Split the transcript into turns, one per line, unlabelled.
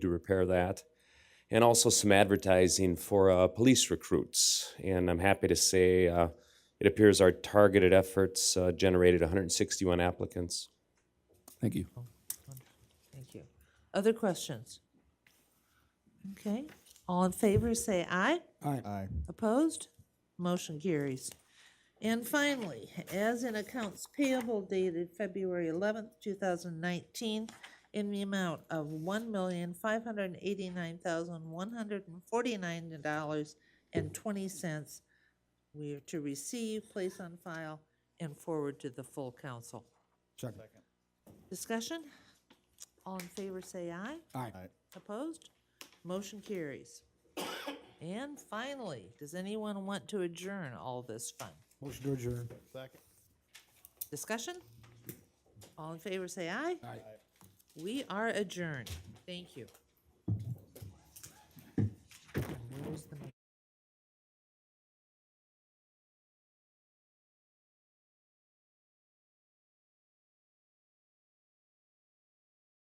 to repair that. And also some advertising for uh, police recruits. And I'm happy to say uh, it appears our targeted efforts uh, generated 161 applicants.
Thank you.
Thank you. Other questions? Okay, all in favor, say aye.
Aye.
Opposed? Motion carries. And finally, as in accounts payable dated February eleventh, two thousand nineteen, in the amount of one million, five hundred and eighty-nine thousand, one hundred and forty-nine dollars and twenty cents, we are to receive, place on file, and forward to the full council.
Second.
Discussion? All in favor, say aye.
Aye.
Opposed? Motion carries. And finally, does anyone want to adjourn all this fun?
Motion to adjourn.
Discussion? All in favor, say aye. Aye. We are adjourned. Thank you.